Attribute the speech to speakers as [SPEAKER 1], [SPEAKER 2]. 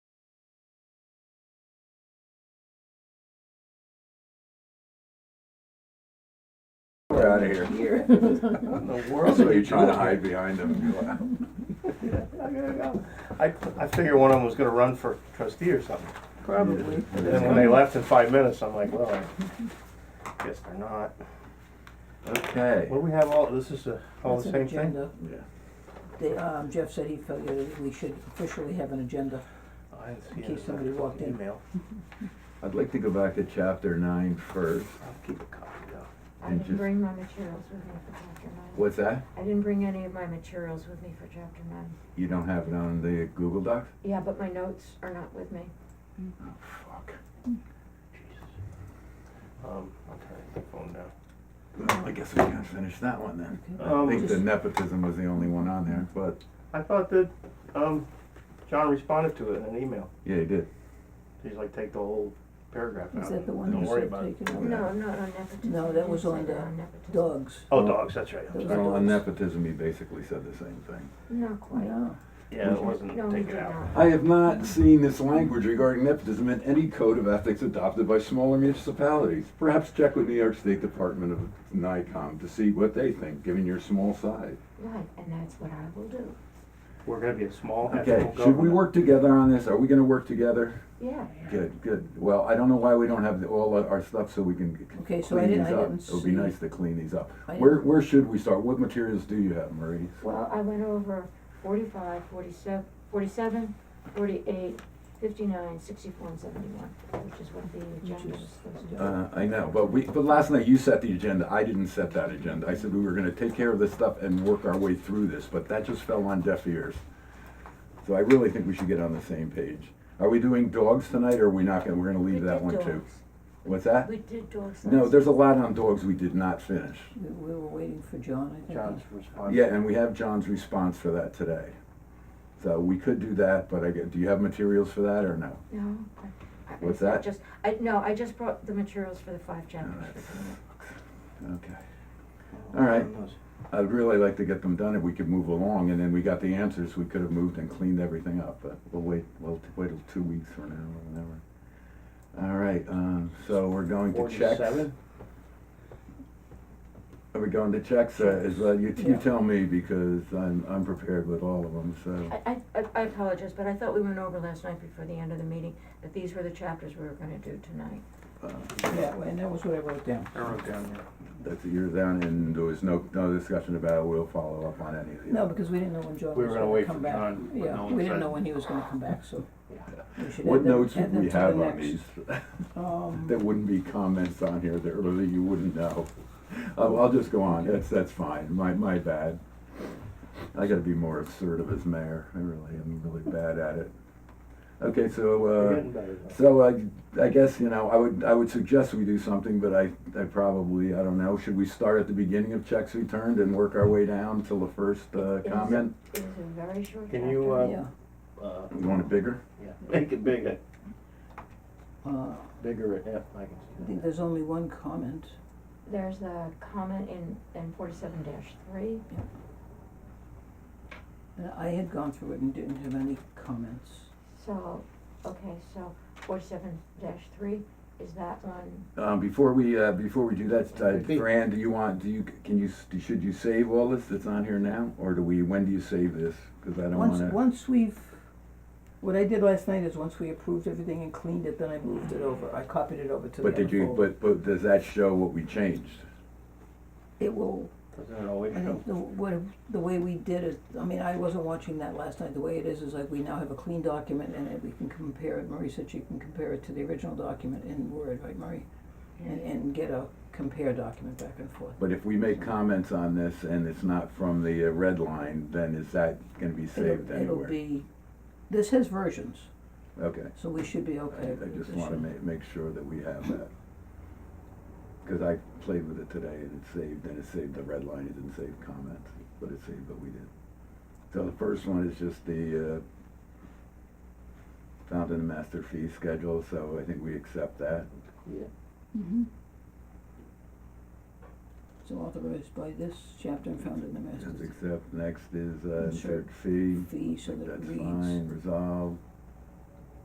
[SPEAKER 1] We're out of here.
[SPEAKER 2] Here.
[SPEAKER 3] In the
[SPEAKER 1] That's
[SPEAKER 3] world
[SPEAKER 1] what
[SPEAKER 3] are
[SPEAKER 1] you
[SPEAKER 3] you
[SPEAKER 1] try
[SPEAKER 3] doing?
[SPEAKER 1] to hide behind them. and be like,
[SPEAKER 3] I gotta go. I, I figured one of them was gonna run for trustee or something.
[SPEAKER 2] Probably.
[SPEAKER 3] And then when they left in five minutes, I'm like, well, I guess they're not.
[SPEAKER 1] Okay.
[SPEAKER 3] What do we have all, this is uh, all the
[SPEAKER 2] That's
[SPEAKER 3] same
[SPEAKER 2] an
[SPEAKER 3] thing?
[SPEAKER 2] agenda.
[SPEAKER 1] Yeah.
[SPEAKER 2] They, um, Jeff said he felt that we should officially have an agenda.
[SPEAKER 3] I didn't see
[SPEAKER 2] In
[SPEAKER 3] it
[SPEAKER 2] case somebody
[SPEAKER 3] the
[SPEAKER 2] walked in.
[SPEAKER 3] Email.
[SPEAKER 1] I'd like to go back to chapter nine first.
[SPEAKER 3] I'll keep a copy though.
[SPEAKER 4] I
[SPEAKER 1] And
[SPEAKER 4] didn't
[SPEAKER 1] just-
[SPEAKER 4] bring my materials with me for chapter nine.
[SPEAKER 1] What's that?
[SPEAKER 4] I didn't bring any of my materials with me for chapter nine.
[SPEAKER 1] You don't have it on the Google Docs?
[SPEAKER 4] Yeah, but my notes are not with me.
[SPEAKER 1] Oh, fuck.
[SPEAKER 3] Um, I'll turn the phone down.
[SPEAKER 1] Well, I guess we can finish that one then. I
[SPEAKER 3] Um,
[SPEAKER 1] think the
[SPEAKER 2] just-
[SPEAKER 1] nepotism was the only one on there, but,
[SPEAKER 3] I thought that, um, John responded to it in an email.
[SPEAKER 1] yeah, you did.
[SPEAKER 3] He's like, take the whole paragraph out.
[SPEAKER 2] Is that the one
[SPEAKER 3] Don't
[SPEAKER 2] you
[SPEAKER 3] worry
[SPEAKER 2] said
[SPEAKER 3] about it.
[SPEAKER 2] taken over?
[SPEAKER 4] No, I'm not on nepotism.
[SPEAKER 2] No,
[SPEAKER 4] I
[SPEAKER 2] that
[SPEAKER 4] didn't
[SPEAKER 2] was
[SPEAKER 4] say
[SPEAKER 2] on
[SPEAKER 4] that
[SPEAKER 2] the
[SPEAKER 4] on nepotism.
[SPEAKER 2] Dogs,
[SPEAKER 3] Oh, dogs, that's right. I'm
[SPEAKER 2] Those
[SPEAKER 3] sorry.
[SPEAKER 2] are-
[SPEAKER 1] Well, on nepotism, he basically said the same thing.
[SPEAKER 4] Not quite.
[SPEAKER 2] yeah.
[SPEAKER 3] Yeah, it wasn't
[SPEAKER 4] No, we
[SPEAKER 3] taken
[SPEAKER 4] did
[SPEAKER 3] out.
[SPEAKER 4] not.
[SPEAKER 1] I have not seen this language regarding nepotism in any code of ethics adopted by smaller municipalities. Perhaps check with New York State Department of NICOM to see what they think, given your small size.
[SPEAKER 4] Right, and that's what I will do.
[SPEAKER 3] We're gonna be a small ethical
[SPEAKER 1] Okay,
[SPEAKER 3] government.
[SPEAKER 1] should we work together on this? Are we gonna work together?
[SPEAKER 4] Yeah,
[SPEAKER 1] Good, good. Well, I don't know why we don't have the- all of our stuff so we can c-
[SPEAKER 2] Okay, so I
[SPEAKER 1] clean
[SPEAKER 2] didn't-
[SPEAKER 1] these
[SPEAKER 2] I
[SPEAKER 1] up.
[SPEAKER 2] didn't
[SPEAKER 1] It would be
[SPEAKER 2] see-
[SPEAKER 1] nice to clean these up.
[SPEAKER 2] I
[SPEAKER 1] Where,
[SPEAKER 2] didn't-
[SPEAKER 1] where should we start? What materials do you have, Marie?
[SPEAKER 4] well, I went over forty-five, forty-seven, forty-seven, forty-eight, fifty-nine, sixty-four, and seventy-one, which is what the agenda
[SPEAKER 2] is-
[SPEAKER 4] was supposed to do.
[SPEAKER 1] Uh, I know, but we, but last night you set the agenda, I didn't set that agenda, I said we were gonna take care of this stuff and work our way through this, but that just fell on deaf ears. So I really think we should get on the same page. Are we doing dogs tonight, or are we not gonna, we're gonna
[SPEAKER 4] We
[SPEAKER 1] leave that
[SPEAKER 4] did
[SPEAKER 1] one too?
[SPEAKER 4] dogs.
[SPEAKER 1] What's that?
[SPEAKER 4] We did dogs
[SPEAKER 1] No,
[SPEAKER 4] last-
[SPEAKER 1] there's a lot on dogs we did not finish.
[SPEAKER 2] We, we were waiting for John, I think.
[SPEAKER 3] John's response.
[SPEAKER 1] Yeah, and we have John's response for that today. So we could do that, but I, get- do you have materials for that or no?
[SPEAKER 4] No. I- I-
[SPEAKER 1] What's
[SPEAKER 4] I
[SPEAKER 1] that?
[SPEAKER 4] Just, I, no, I just brought the materials for the five chapters. for tonight.
[SPEAKER 1] Okay. All right. I'd really like to get them done if we could move along, and then we got the answers, we could have moved and cleaned everything up, but we'll wait, we'll t- wait till two weeks from now or whatever. All right, um, so we're going to checks.
[SPEAKER 3] Forty-seven?
[SPEAKER 1] Are we going to checks, uh, is, uh, you, you
[SPEAKER 2] Yeah.
[SPEAKER 1] tell me, because I'm, I'm prepared with all of them, so.
[SPEAKER 4] I, I- I, I apologize, but I thought we went over last night before the end of the meeting, that these were the chapters we were gonna do tonight.
[SPEAKER 2] Yeah, and that was what I wrote down.
[SPEAKER 3] I wrote down there.
[SPEAKER 1] That's, you're down, and there was no, no discussion about, it. we'll follow up on any of these.
[SPEAKER 2] No, because we didn't know when John
[SPEAKER 3] We were
[SPEAKER 2] was
[SPEAKER 3] gonna
[SPEAKER 2] gonna
[SPEAKER 3] wait
[SPEAKER 2] come
[SPEAKER 3] for
[SPEAKER 2] back.
[SPEAKER 3] John, but no
[SPEAKER 2] Yeah,
[SPEAKER 3] one
[SPEAKER 2] we didn't know
[SPEAKER 3] said.
[SPEAKER 2] when he was gonna come back, so we should
[SPEAKER 1] What
[SPEAKER 2] add them-
[SPEAKER 1] notes
[SPEAKER 2] add
[SPEAKER 1] would
[SPEAKER 2] them
[SPEAKER 1] we
[SPEAKER 2] to the
[SPEAKER 1] have on
[SPEAKER 2] next.
[SPEAKER 1] these?
[SPEAKER 2] Um,
[SPEAKER 1] There wouldn't be comments on here, there really, you wouldn't know. I'll, I'll just go on, that's, that's fine, my, my bad. I gotta be more assertive as mayor, I really, am really bad at it. Okay, so,
[SPEAKER 3] We're
[SPEAKER 1] uh,
[SPEAKER 3] getting better though.
[SPEAKER 1] so I, I guess, you know, I would, I would suggest we do something, but I, I probably, I don't know, should we start at the beginning of checks returned and work our way down till the first, uh,
[SPEAKER 4] It is-
[SPEAKER 1] comment?
[SPEAKER 4] It is a very short chapter.
[SPEAKER 3] Can you, uh,
[SPEAKER 2] yeah,
[SPEAKER 3] Uh,
[SPEAKER 1] You want it bigger?
[SPEAKER 3] yeah, Make it bigger,
[SPEAKER 2] uh,
[SPEAKER 3] bigger, yeah, I can
[SPEAKER 2] I
[SPEAKER 3] see
[SPEAKER 2] think there's only one comment.
[SPEAKER 4] There's a comment in, in forty-seven three,
[SPEAKER 2] And I had gone through it and didn't have any comments.
[SPEAKER 4] so, okay, so forty-seven three, is that one,
[SPEAKER 1] Um, before we, uh, before we do that,
[SPEAKER 3] I
[SPEAKER 1] uh,
[SPEAKER 3] think-
[SPEAKER 1] Fran, do you want, do you, can you, s- should you save all this that's on here now? Or do we, when do you save this? Cause I don't
[SPEAKER 2] Once,
[SPEAKER 1] wanna,
[SPEAKER 2] once we've, what I did last night is once we approved everything and cleaned it, then I moved it over. I copied it over to the
[SPEAKER 1] but
[SPEAKER 2] other
[SPEAKER 1] did you,
[SPEAKER 2] folder.
[SPEAKER 1] but, but does that show what we changed?
[SPEAKER 2] It will,
[SPEAKER 3] that. Doesn't it always
[SPEAKER 2] I
[SPEAKER 3] show?
[SPEAKER 2] think the, what, the way we did it, I mean, I wasn't watching that last night. The way it is, is like we now have a clean document and it- we can compare it. Marie said she can compare it to the original document in Word, right, Marie? And, and get a compare document back and forth.
[SPEAKER 1] But if we make comments on this and it's not from the uh, red line, then is that gonna be
[SPEAKER 2] It'll-
[SPEAKER 1] saved anywhere?
[SPEAKER 2] It'll be, this has versions,
[SPEAKER 1] Okay,
[SPEAKER 2] so we should be
[SPEAKER 1] I,
[SPEAKER 2] okay.
[SPEAKER 1] I
[SPEAKER 2] with
[SPEAKER 1] just
[SPEAKER 2] this.
[SPEAKER 1] wanna ma- make sure that we have that. Cause I played with it today and it saved, and it saved the red line, it didn't save comments, but it saved what we did. So the first one is just the, uh, found in the master fee schedule, so I think we accept that.
[SPEAKER 3] Yeah.
[SPEAKER 2] So authorized by this chapter and found in the
[SPEAKER 1] Just
[SPEAKER 2] master's
[SPEAKER 1] accept, next is, uh,
[SPEAKER 2] Insert
[SPEAKER 1] insert fee,
[SPEAKER 2] fee so that it
[SPEAKER 1] that's
[SPEAKER 2] reads.
[SPEAKER 1] fine, resolved,